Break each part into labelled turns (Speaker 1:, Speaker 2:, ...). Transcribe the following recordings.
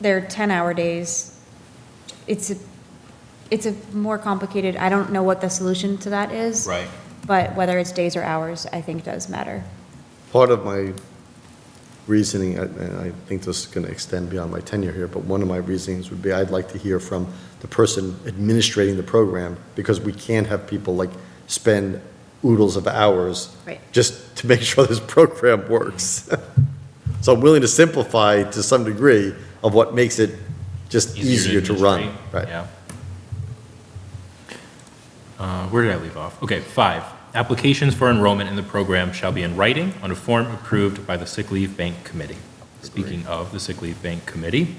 Speaker 1: they're 10-hour days. It's a, it's a more complicated, I don't know what the solution to that is.
Speaker 2: Right.
Speaker 1: But whether it's days or hours, I think does matter.
Speaker 3: Part of my reasoning, and- and I think this is going to extend beyond my tenure here, but one of my reasonings would be I'd like to hear from the person administrating the program, because we can't have people like spend oodles of hours
Speaker 1: Right.
Speaker 3: just to make sure this program works. So I'm willing to simplify to some degree of what makes it just easier to run.
Speaker 2: administrate,
Speaker 3: Right.
Speaker 2: Yeah. Uh, Where did I leave off? Okay, five, applications for enrollment in the program shall be in writing on a form approved by the Sick Leave Bank Committee. Speaking of the Sick Leave Bank Committee,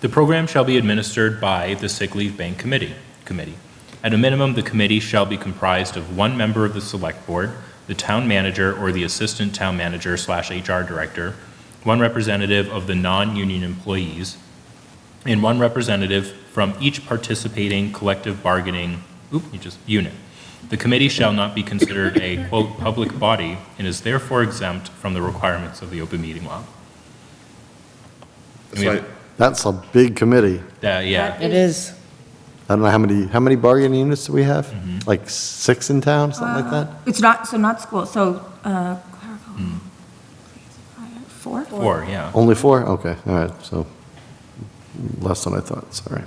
Speaker 2: the program shall be administered by the Sick Leave Bank Committee. Committee. At a minimum, the committee shall be comprised of one member of the Select Board, the Town Manager or the Assistant Town Manager slash HR Director, one representative of the non-union employees, and one representative from each participating collective bargaining, oop, you just, unit. The committee shall not be considered a, quote, "public body" and is therefore exempt from the requirements of the open meeting law. And we have-
Speaker 3: That's a big committee.
Speaker 2: That- yeah,
Speaker 1: That
Speaker 4: It is.
Speaker 3: I don't know how many, how many bargaining units do we have? Like six in town, something like that?
Speaker 5: It's not, so not school, so uh, clerical. Four?
Speaker 2: four, yeah.
Speaker 3: Only four? Okay, all right, so less than I thought, sorry.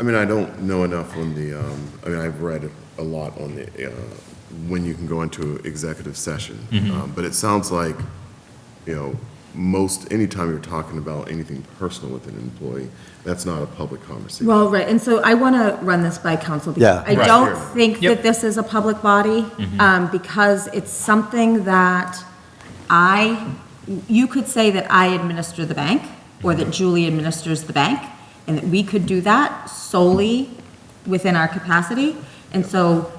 Speaker 6: I mean, I don't know enough on the, um, I mean, I've read a lot on the, uh, when you can go into executive session. Um, But it sounds like, you know, most, anytime you're talking about anything personal with an employee, that's not a public conversation.
Speaker 5: Well, right, and so I want to run this by council.
Speaker 3: Yeah.
Speaker 5: because I
Speaker 2: Right.
Speaker 5: don't
Speaker 2: Yep.
Speaker 5: think
Speaker 2: Mm-hmm.
Speaker 5: that this is a public body, um, because it's something that I, you could say that I administer the bank, or that Julie administers the bank, and that we could do that solely within our capacity. And so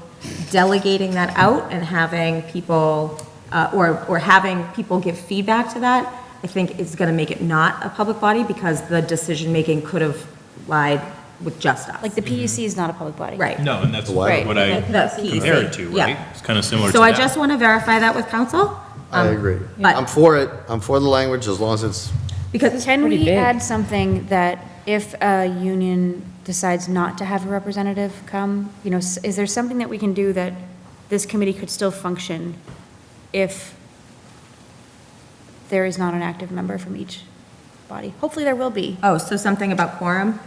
Speaker 5: delegating that out and having people, uh, or, or having people give feedback to that, I think is going to make it not a public body, because the decision-making could have lied with just us.
Speaker 1: Like, the PUC is not a public body.
Speaker 5: Right.
Speaker 2: No, and that's
Speaker 3: Why?
Speaker 2: what I
Speaker 5: That's the
Speaker 2: compare it
Speaker 5: PEC,
Speaker 2: to,
Speaker 5: yeah.
Speaker 2: right? It's kind of similar to
Speaker 5: So I
Speaker 2: that.
Speaker 5: just want to verify that with council.
Speaker 3: I
Speaker 5: um,
Speaker 3: agree.
Speaker 5: but-
Speaker 3: I'm for it, I'm for the language as long as it's,
Speaker 5: Because,
Speaker 1: Can
Speaker 4: pretty
Speaker 1: we
Speaker 4: big.
Speaker 1: add something that if a union decides not to have a representative come, you know, s- is there something that we can do that this committee could still function if there is not an active member from each body? Hopefully, there will be.
Speaker 5: oh, so something about quorum,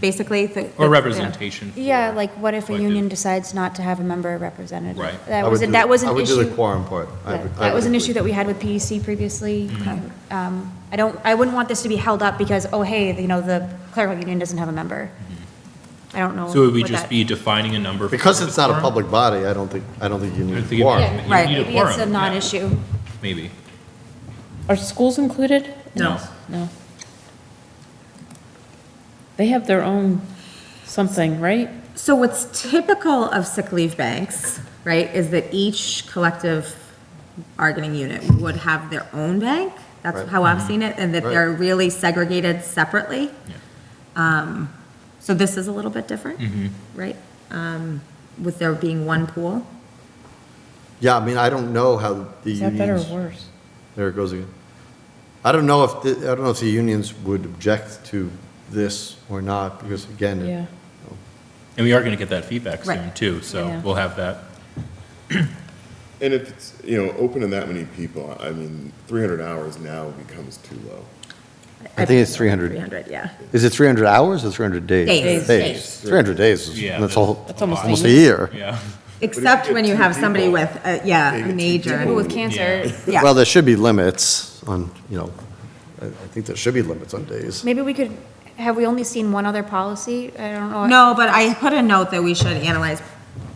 Speaker 5: basically? the-
Speaker 2: Hmm. Or
Speaker 5: the-
Speaker 2: representation.
Speaker 1: Yeah,
Speaker 2: for
Speaker 1: like what if a
Speaker 2: collective-
Speaker 1: union decides not to have a member representative?
Speaker 2: Right.
Speaker 1: That
Speaker 3: I
Speaker 1: was,
Speaker 3: would
Speaker 1: a-
Speaker 3: do-
Speaker 1: that was an
Speaker 3: I would do the
Speaker 1: issue.
Speaker 3: quorum part. I
Speaker 1: Yeah,
Speaker 3: would- I
Speaker 1: That was
Speaker 3: would
Speaker 1: an
Speaker 3: agree.
Speaker 1: issue that we had with PEC previously.
Speaker 2: Mm-hmm.
Speaker 1: Um, I don't, I wouldn't want this to be held up because, oh, hey, you know, the clerical union doesn't have a member. I don't know.
Speaker 2: Mm-hmm. So would we
Speaker 1: what
Speaker 2: just
Speaker 1: that-
Speaker 2: be defining a number? for
Speaker 3: Because it's not a
Speaker 2: quorum?
Speaker 3: public body, I don't think, I don't think you
Speaker 2: I
Speaker 3: need a
Speaker 2: think it-
Speaker 3: quorum.
Speaker 2: You
Speaker 5: Right.
Speaker 2: need
Speaker 1: Maybe
Speaker 2: a
Speaker 1: it's a
Speaker 2: quorum, yeah.
Speaker 1: non-issue.
Speaker 2: Maybe.
Speaker 4: Are schools included? in
Speaker 2: No.
Speaker 4: this? No. They have their own something, right?
Speaker 5: So what's typical of sick leave banks, right, is that each collective bargaining unit would have their own bank?
Speaker 3: Right.
Speaker 5: That's how I've seen it, and that
Speaker 3: Right.
Speaker 5: they're really segregated separately. Um, So this is a little bit different, right? Um, With there being one pool.
Speaker 3: Yeah, I mean, I don't know how the
Speaker 4: Is that better or
Speaker 3: unions,
Speaker 4: worse?
Speaker 3: there it goes again. I don't know if, the- I don't know if the unions would object to this or not, because again,
Speaker 4: Yeah.
Speaker 3: it-
Speaker 2: And we are going to get that feedback soon
Speaker 5: Right.
Speaker 2: too, so
Speaker 4: Yeah.
Speaker 2: we'll have that.
Speaker 6: And if it's, you know, open to that many people, I mean, 300 hours now becomes too low.
Speaker 3: I think it's 300.
Speaker 5: 300, yeah.
Speaker 3: Is it 300 hours or 300 days?
Speaker 5: Days. Days.
Speaker 3: 300 days, is-
Speaker 2: Yeah,
Speaker 3: that's all,
Speaker 4: That's almost a
Speaker 3: almost a
Speaker 4: year.
Speaker 3: year.
Speaker 2: Yeah.
Speaker 5: Except
Speaker 6: get
Speaker 5: when you
Speaker 6: two
Speaker 5: have somebody
Speaker 6: people-
Speaker 5: with, uh,
Speaker 6: you
Speaker 5: yeah, a
Speaker 6: get two
Speaker 1: People
Speaker 5: major,
Speaker 1: with cancer,
Speaker 5: yeah.
Speaker 3: Well, there should be limits on, you know, I I think there should be limits on days.
Speaker 1: maybe we could, have we only seen one other policy? I don't know.
Speaker 5: No, but I put a note that we should analyze,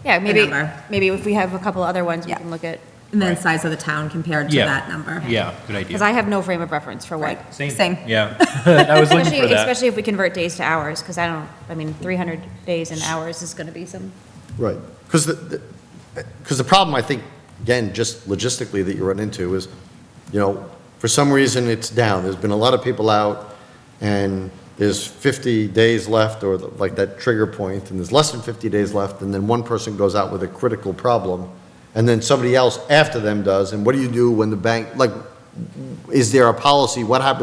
Speaker 1: Yeah, maybe,
Speaker 5: number.
Speaker 1: maybe if we have a couple other ones, we
Speaker 5: Yeah.
Speaker 1: can look at,
Speaker 5: and then
Speaker 2: Right.
Speaker 5: size of the town compared to
Speaker 2: Yeah.
Speaker 5: that number.
Speaker 2: Yeah, good idea.
Speaker 1: because I have no frame of reference for what.
Speaker 5: same.
Speaker 2: Yeah. I was looking for
Speaker 1: Especially,
Speaker 2: that.
Speaker 1: especially if we convert days to hours, because I don't, I mean, 300 days and hours is going to be some.
Speaker 3: Right. Because the, because the problem, I think, again, just logistically that you run into is, you know, for some reason it's down. There's been a lot of people out and there's 50 days left or the- like that trigger point and there's less than 50 days left and then one person goes out with a critical problem and then somebody else after them does. And what do you do when the bank, like, is there a policy? What happens